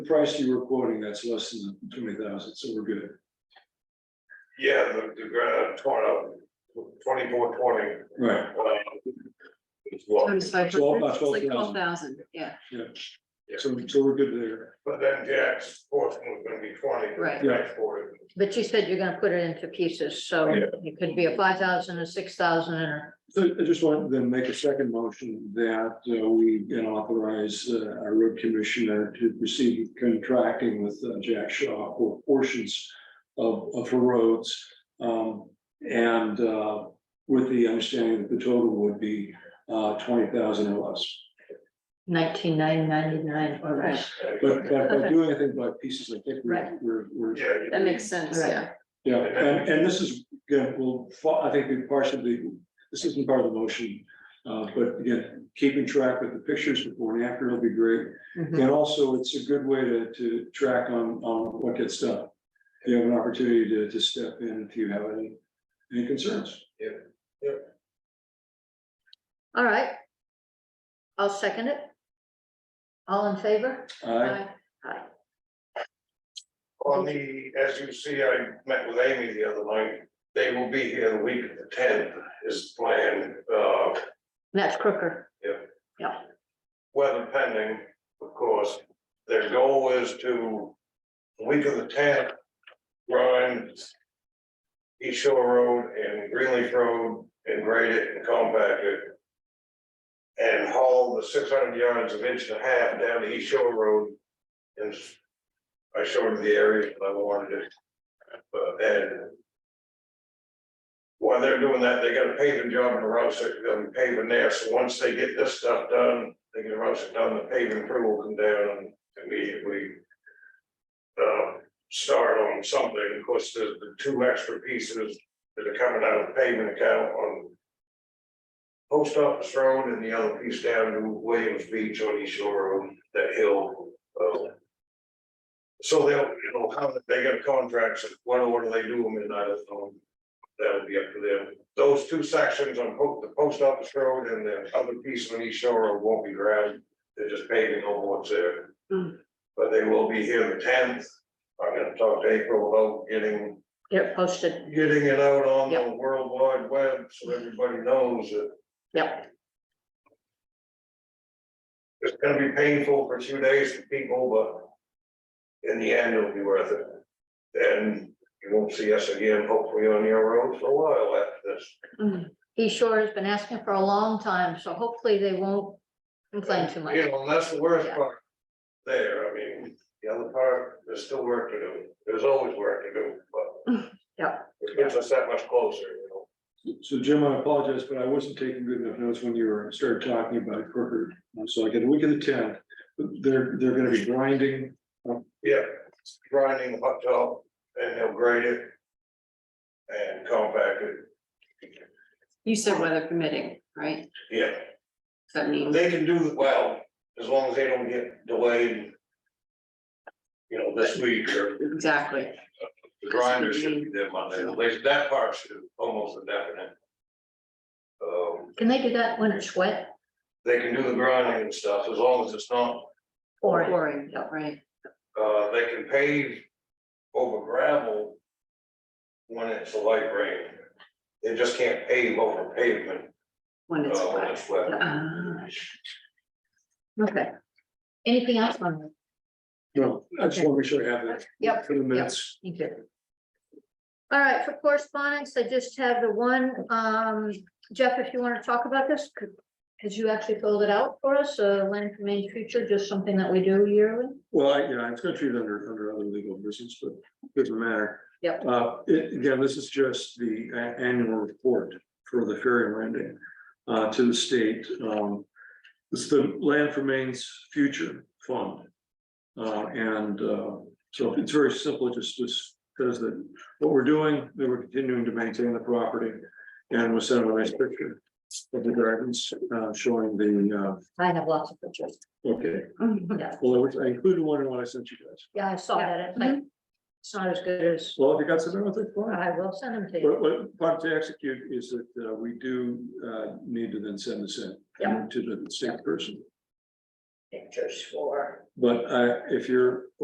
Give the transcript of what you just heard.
price you were quoting, that's less than twenty thousand, so we're good. Yeah, the, the ground torn up, uh, twenty-four, twenty. Right, As well, Twenty-five Twelve hundred, by it's like 12,000. twelve thousand, yeah, so, so we're good there. but then Jack's portion was gonna be twenty. Right. Yeah. Exported. But you said you're gonna put it into pieces, so Yeah. it could be a five thousand, a six thousand, and a So I just want to then make a second motion that uh, we can authorize uh, our road commissioner to proceed contracting with uh, Jack Shaw for portions of, of her roads. um, And uh, with the understanding that the total would be uh, twenty thousand or less. nineteen nine ninety-nine or less. But but by Okay. doing anything by pieces, I think we're, Right. we're, we're Yeah. you- that makes sense, Right. yeah. Yeah, and, and this is, again, will, fa- I think we partially, this isn't part of the motion. Uh, but again, keeping track with the pictures before and after will be great. Mhm. And also, it's a good way to, to track on, on what gets done. If You have an opportunity to, to step in if you have any, any concerns. All right. I'll second it. All in favor? I, Aye. On the, as you see, I met with Amy the other night, they will be here the week of the tenth is the plan, uh, That's Crooker. weather pending, of course. Their goal is to, week of the tenth, grind East Shore Road and Greenleaf Road and grade it and compact it. And haul the six hundred yards of inch and a half down to East Shore Road. And s- I showed her the area that I wanted it. But and while they're doing that, they got a paving job in the road, so they'll be paving there, so once they get this stuff done, they can rush it down, the paving crew will come down and immediately. Uh, start on something, of course, there's the two extra pieces that are coming out of the paving account on. Post Office Road and the other piece down to Williams Beach on East Shore Road, that hill, uh, So they'll, you know, how, they got contracts, what order they do them in, I don't know that'll be up to them. Those two sections on Po- the post office road and the other piece on East Shore Road won't be ground. They're just paving over what's there. Hmm. But they will be here the tenth. I'm gonna talk to April about getting, Get it posted. getting it out on the world wide web so everybody knows that Yep. it's gonna be painful for two days for people, but in the end, it'll be worth it. Then you won't see us again, hopefully on your road for a while after this. East Shore has been asking for a long time, so hopefully they won't complain too much. You know, and that's the worst Yeah. part there, I mean, the other part, there's still work to do, there's always work to do, but. Yeah. It gets us that much closer, you know, so Jim, I apologize, but I wasn't taking good enough notes when you were, started talking about Crooker. So I get a week of the tenth, they're, they're gonna be grinding yeah, grinding the hot top, and they'll grade it. And compact it, You said weather permitting, right? yeah, Does that mean, they can do well, as long as they don't get delayed. You know, this week or exactly, The grinder should be there Monday, at least that part should almost a definite. Um, Can they do that when it's wet they can do the grinding and stuff, as long as it's not, or? pouring, Yep. right? uh, they can pave over gravel. When it's a light rain, they just can't pave over pavement, When it's uh, when wet. it's wet. Ah, Okay. Anything else on that? No, I just want to make sure I have that. Yep, For the minutes. You did. All right, for correspondence, I just have the one, um, Jeff, if you want to talk about this, could, could you actually filled it out for us, uh, land for Maine future, just something that we do yearly? Well, I, yeah, it's gonna treat it under, under other legal business, but it doesn't matter. Yep. Uh, it, again, this is just the a- annual report for the ferry landing, uh, to the state, um. It's the Land for Maine's Future Fund. Uh, and, uh, so it's very simple, it just, just says that what we're doing, that we're continuing to maintain the property. And we'll send them a nice picture of the gardens, uh, showing the, I have lots of pictures. uh, okay, mhm. Yeah, well, I wish- I included one in what I sent you guys. yeah, Mm-hmm. I saw that. It's like, it's not as good as, Well, if you got something with it, fine. I will send them to you. What, what, part to execute is that uh, we do, uh, need to then send this in. Yeah. To the state person, Pictures for. but, uh, if you're